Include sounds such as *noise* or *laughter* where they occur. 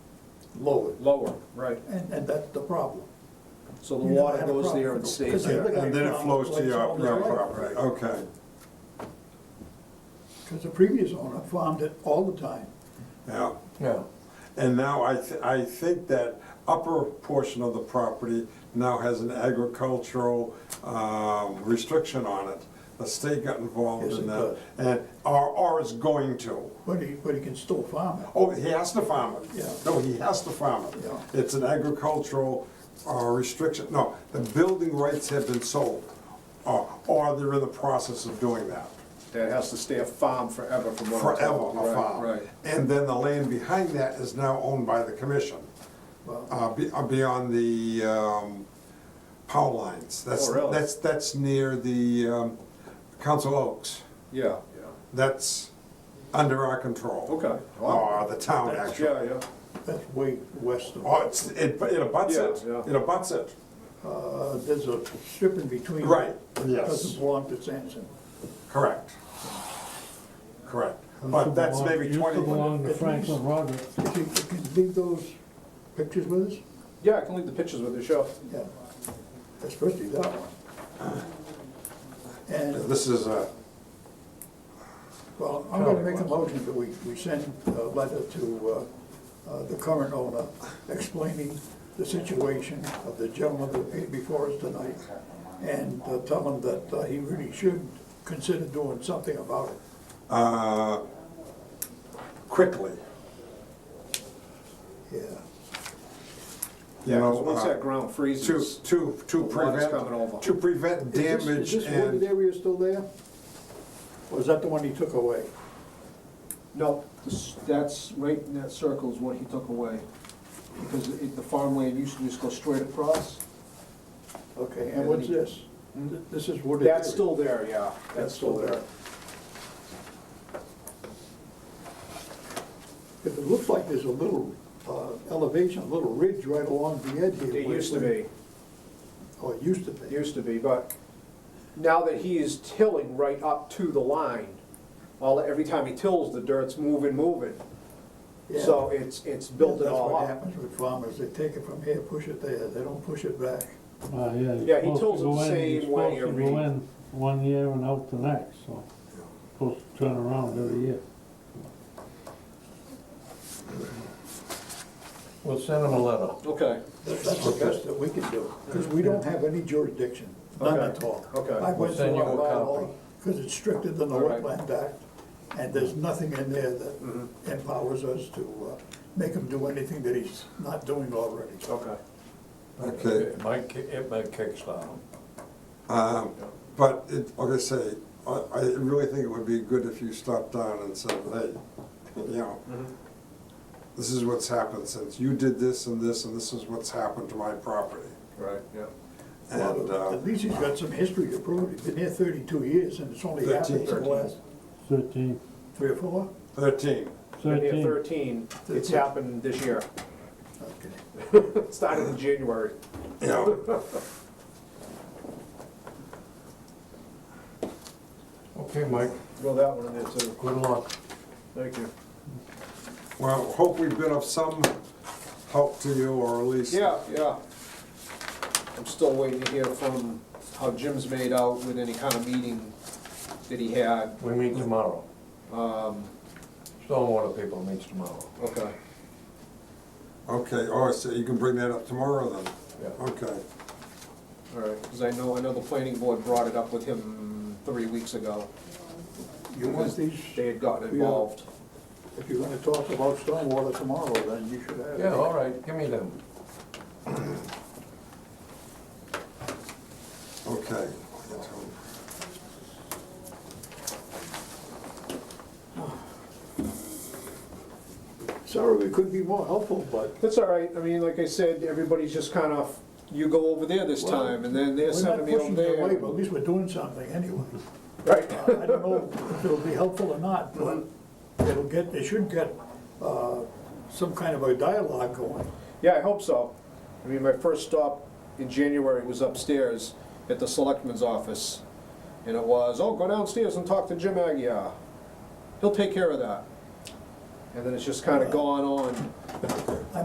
lower. lower, right. And, and that's the problem. So the You never water had a goes problem. there and stays Because there. you- Yeah, And then it flows to your your property, okay. Because the previous owner farmed it all the time. Yeah. Yeah. And now I, th- I think that upper portion of the property now has an agricultural um, restriction on it. The state got involved Yes, in it that, and, or, or is going to. But he, but he can still farm it. Oh, he has to farm it. Yeah. No, he has to farm it. Yeah. It's an agricultural uh, restriction, no, the building rights have been sold, or or they're in the process of doing that. That has to stay a farm forever from what I'm Forever told. a Right, farm. Right. And then the land behind that is now owned by the commission, Well, uh, be- uh, beyond the um, power lines. That's Oh, really? That's, that's near the um, Council Oaks. Yeah, That's under our control. Okay. Or the town, yeah, actually. yeah, yeah. that's way west of, Oh, it's, it, it abuts it, Yeah, yeah. it abuts it. uh, there's a strip in between. Right, yes. Doesn't belong to Sampson. Correct. Correct. But that's maybe Used to twenty, belong to Franklin Rogers. If you if you leave those pictures with us, Yeah, I can leave the pictures with the show. yeah, especially that one. And, this is a, well, I'm gonna make a motion that we, we send a letter to, uh, uh, the current owner explaining the situation of the gentleman that appeared before us tonight and uh, tell him that uh, he really should consider doing something about it. uh, quickly, Yeah, you Yeah, 'cause know, once uh, that ground to, freezes, to, to The water's coming over. prevent, to prevent Is this- damage Is this wooded and, area still there? Or is that the one he took away? no, this- that's, right in that circle is what he took away. Because it- the farmland used to just go straight across. Okay, and what's this? Th- This is wooded area? That's still there, yeah. That's still there. If it looks like there's a little uh, elevation, a little ridge right along the edge here. It where- used to be. Oh, it used to It be. used to be, but now that he is tilling right up to the line, all, every time he tills, the dirt's moving, moving. Yeah. So it's, it's built it all That's what up. happens with farmers, they take it from here, push it there, they don't push it back. Yeah, Ah, yeah. he you're supposed tells to them go in- same you're way supposed to every- go in one year and out the next, so, supposed to turn around every year. We'll send them a letter. Okay, That- That's the best that we can do, because we don't have any jurisdiction, none Okay. at all. Okay. I went We'll send through you our a bylaw, copy. because it's stricter than the All right. Wetland Act, and there's nothing in there that empowers us to uh, make him do anything that he's not doing already. okay. okay. It might, ki- it might kickstart them. Um, But it, like I say, I, I really think it would be good if you stopped down and said, hey, you know, this is what's happened since you did this and this, and this is what's happened to my property. Right, yeah. And, uh, At least he's got some history to prove, he's been here thirty-two years, and it's only happened in the 13. last Thirteen, three or four? thirteen. And at thirteen, thirteen, it's happened this year. *laughs* Okay. It started in January. Yeah. Okay, Mike, Throw that one in there too. good luck. Thank you. Well, hope we've been of some help to you, or at least. Yeah, yeah. I'm still waiting to hear from how Jim's made out with any kind of meeting that he had. We meet tomorrow. Um, Stormwater people meets tomorrow. okay. Okay, oh, so you can bring that up tomorrow then? Yeah. Okay, All right, because I know, I know the planning board brought it up with him three weeks ago. You want these, They had gotten involved. if you're gonna talk about stormwater tomorrow, then you should have. it. Yeah, all right, give me them. okay. Sorry, we couldn't be more helpful, but That's all right, I mean, like I said, everybody's just kind of, you go over there this Well, time, and then they're We're not sending me over pushing it there. away, but at least we're doing something *laughs* anyway. Right, Uh, I don't know if it'll be helpful or not, but it'll get, they should get uh, some kind of a dialogue going. yeah, I hope so. I mean, my first stop in January was upstairs at the selectman's office, and it was, oh, go downstairs and talk to Jim Agia. He'll take care of that. And then it's just kind of gone on.